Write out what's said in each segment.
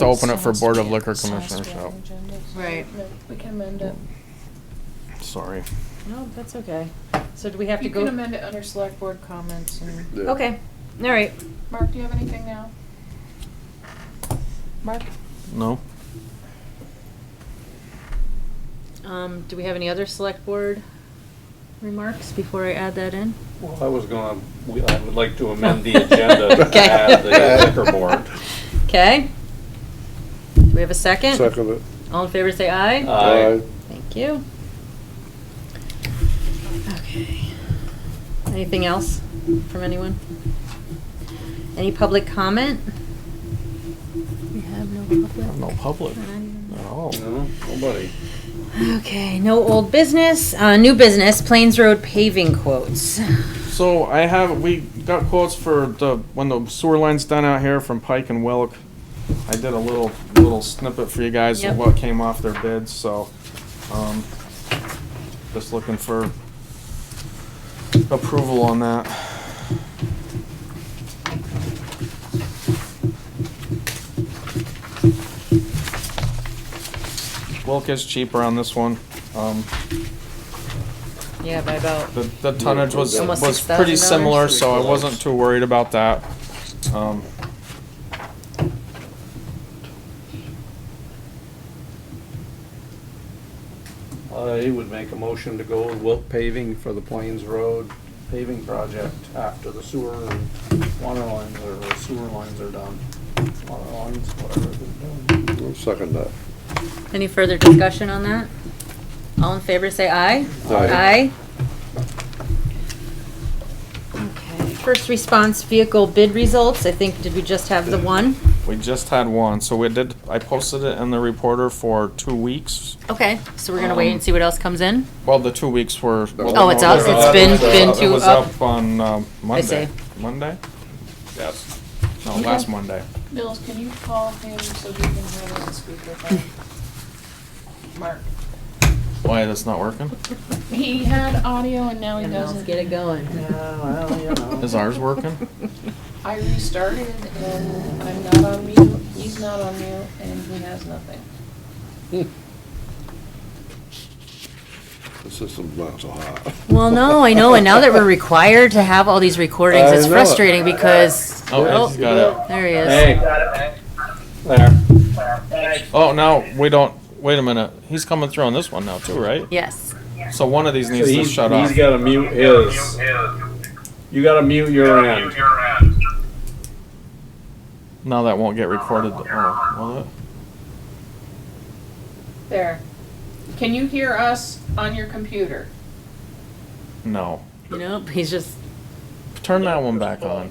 to open it for Sounds Board of weird. Liquor Sounds Commissioners, weird so, on agenda. Right. No, We can amend it. sorry. No, that's okay. So do we have to You go? can amend it under select board comments and, Okay, all right. Mark, do you have anything now? Mark, No? um, do we have any other select board remarks before I add that in? Well, I was going, I would like to amend the agenda to Okay. add the liquor board. Okay. Do we have a second? Second it. All in favor, say aye. Aye. Thank you. Okay. Anything else from anyone? Any public comment? We have no public. No public at all. Oh, No, nobody. Okay, no old business, uh, new business, Plains Road paving quotes. So I have, we got quotes for the, when the sewer line's done out here from Pike and Wilk. I did a little, little snippet for you guys Yep. of what came off their bids, so, um, just looking for approval on that. Wilk is cheaper on this one, um, Yeah, by about. the, the tonnage was, Almost was pretty $6,000. similar, so I wasn't too worried about that. Um, I would make a motion to go with Wilk paving for the Plains Road paving project after the sewer and water lines or sewer lines are done. Water lines, whatever they're doing. I'll Second that. Any further discussion on that? All in favor, say aye. Aye. Okay. First response vehicle bid results, I think, did we just have the one? we just had one, so we did, I posted it in the reporter for two weeks. Okay, so we're gonna wait and see what else comes in? Well, the two weeks were. well, Oh, it's no, up, they're it's up. been- They're been It two was up. up on, um, Monday. see. Monday? Yes. No, last Monday. Bills, can you call him so he can have it on speakerphone? Mark, Why, that's not working? he had audio and now he doesn't. Get it going. Yeah, well, you know. Is ours working? I restarted and I'm not on mute, he's not on mute, and he has nothing. The system's not so hot. Well, no, I know, and now that we're required to have all these recordings, I it's know it. frustrating because, Oh, I just got oh, it. there he is. Hey. There. Oh, now, we don't, wait a minute, he's coming through on this one now too, right? Yes, So one of these So needs to he's, he's shut off. gotta mute his. You gotta mute your end. Now that won't get recorded, oh, will it? There. Can you hear us on your computer? No. nope, he's just, Turn that one back on.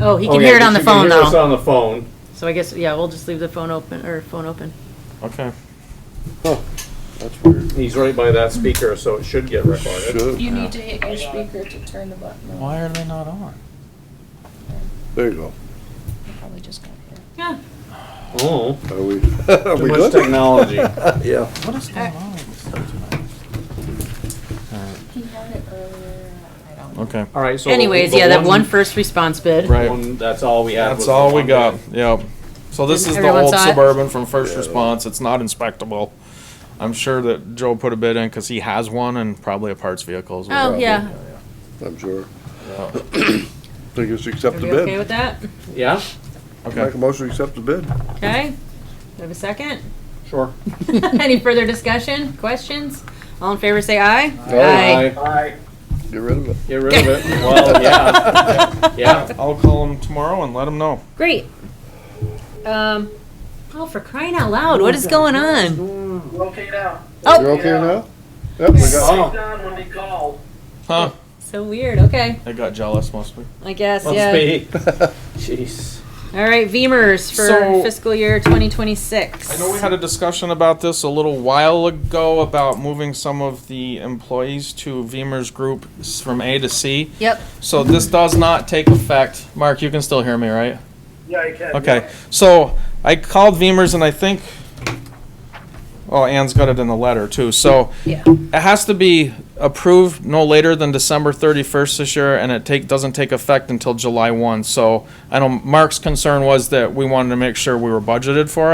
oh, he Oh, can yeah, hear it but on the you can phone hear us though. on the phone. So I guess, yeah, we'll just leave the phone open, or phone open. Okay. Huh, That's weird. He's right by that speaker, so it should get recorded. Should, You need to hit your speaker to turn the button on. Why are they not on? there you go. I Probably just got here. Oh, Are we, are too we much good? technology. Yeah. What is going on with this thing tonight? He had it earlier, I don't know. Okay, All right, so. Anyways, the yeah, that one first response bid. Right. one- That's all we had. was that's the all we one got, bid. yep. So this is the Everyone old saw it? Suburban from First Response, it's not inspectable. I'm sure that Joe put a bid in, cause he has one and probably a parts vehicle as well. Oh, yeah, I'm sure. Yeah. Think it's are accept the we okay bid. with that? Yeah, Okay, Make a motion to accept the bid. Okay, do we have a second? sure. Any further discussion, questions? All in favor, say aye. Aye. Get rid of it. Get rid of it. Well, yeah, yeah. I'll call him tomorrow and let him know. Great. Um, oh, for crying out loud, what is going on? Locate out. You Oh, okay now? Yep, we got, Oh, Down when they call. Huh, so weird, okay, I got jealous mostly. I guess, must yeah. be. Jeez. All right, Beamers for So- fiscal year 2026. I know we had a discussion about this a little while ago about moving some of the employees to Veemers Group s- from A to C. Yep, So this does not take effect. Mark, you can still hear me, right? Yeah, you can. Okay, so I called Veemers and I think, oh, Ann's got it in the letter too. So yeah. it has to be approved no later than December 31st this year, and it take, doesn't take effect until July 1. So I know Mark's concern was that we wanted to make sure we were budgeted for it.